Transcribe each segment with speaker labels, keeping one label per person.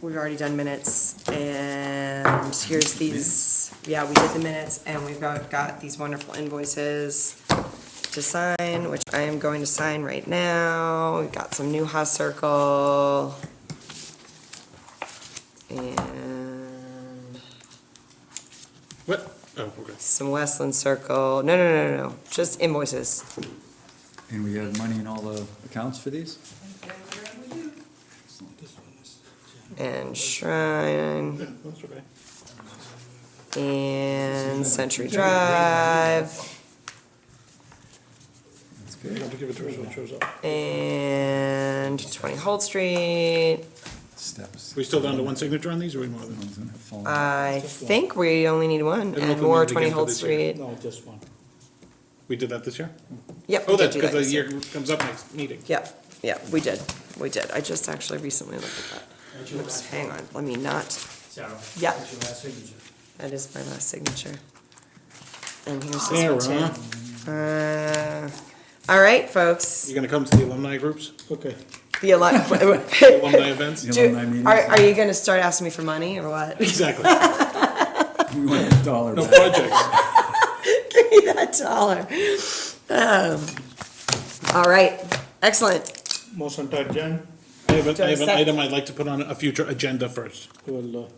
Speaker 1: we've already done minutes, and here's these, yeah, we did the minutes, and we've got, got these wonderful invoices to sign, which I am going to sign right now. We've got some Newhouse Circle. And
Speaker 2: What? Oh, okay.
Speaker 1: some Westland Circle, no, no, no, no, no, just invoices.
Speaker 3: And we had money in all the accounts for these?
Speaker 1: and Shrine
Speaker 2: Oh, That's okay.
Speaker 1: and Century Drive
Speaker 3: That's
Speaker 2: You don't
Speaker 3: good.
Speaker 2: have to give it to us when it shows up.
Speaker 1: and Twenty Holt Street.
Speaker 3: Steps.
Speaker 2: We still down to one signature on these, or we more than?
Speaker 3: One's gonna fall.
Speaker 1: I think we only need one,
Speaker 2: don't know if
Speaker 1: and
Speaker 2: we
Speaker 1: more
Speaker 2: need it
Speaker 1: Twenty
Speaker 2: again for
Speaker 1: Holt
Speaker 2: this year.
Speaker 1: Street.
Speaker 4: No, just one.
Speaker 2: We did that this year?
Speaker 1: Yep,
Speaker 2: Oh,
Speaker 1: we did
Speaker 2: that's
Speaker 1: do
Speaker 2: because
Speaker 1: that
Speaker 2: the
Speaker 1: this
Speaker 2: year
Speaker 1: year.
Speaker 2: comes up next meeting.
Speaker 1: Yep, yep, we did, we did. I just actually recently looked at that. Oops, hang on, let me not,
Speaker 4: Sarah.
Speaker 1: Yeah.
Speaker 4: That's your last signature.
Speaker 1: that is my last signature. And here's
Speaker 2: Sarah.
Speaker 1: this one too. Uh, All right, folks,
Speaker 2: You gonna come to the alumni groups,
Speaker 4: Okay.
Speaker 1: the alumni,
Speaker 2: alumni events?
Speaker 3: The
Speaker 1: Do-
Speaker 3: alumni meetings.
Speaker 1: Are, are you gonna start asking me for money or what?
Speaker 2: Exactly.
Speaker 3: We
Speaker 1: Uh,
Speaker 3: want a dollar
Speaker 2: No
Speaker 3: back.
Speaker 2: projects.
Speaker 1: Give me that dollar. Um, All right, excellent.
Speaker 4: Motion to adjourn.
Speaker 2: I have,
Speaker 1: Do I
Speaker 2: a- I have an
Speaker 1: accept-
Speaker 2: item I'd like to put on a future agenda first.
Speaker 4: We'll, uh,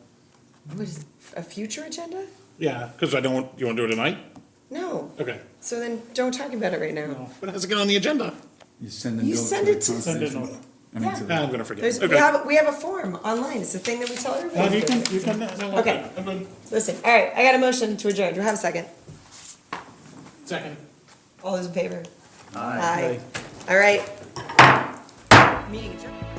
Speaker 1: What is, a future agenda?
Speaker 2: Yeah, because I don't, you wanna do it tonight?
Speaker 1: No,
Speaker 2: Okay.
Speaker 1: so then don't talk about it right now.
Speaker 2: But it has to get on the agenda.
Speaker 3: You send a note.
Speaker 1: You send
Speaker 3: the
Speaker 1: it to-
Speaker 4: send a
Speaker 3: conservation-
Speaker 4: note.
Speaker 3: I mean, to
Speaker 2: Ah,
Speaker 3: the-
Speaker 2: I'm gonna forget.
Speaker 1: There's, we
Speaker 2: Okay.
Speaker 1: have, we have a form online, it's the thing that we tell
Speaker 2: No, you
Speaker 1: everybody.
Speaker 2: can, you can, no, no,
Speaker 1: Okay.
Speaker 2: I'm good.
Speaker 1: Listen, all right, I got a motion to adjourn, do I have a second?
Speaker 2: Second.
Speaker 1: Uh, All those in favor? Aye. All right. Meeting adjourned.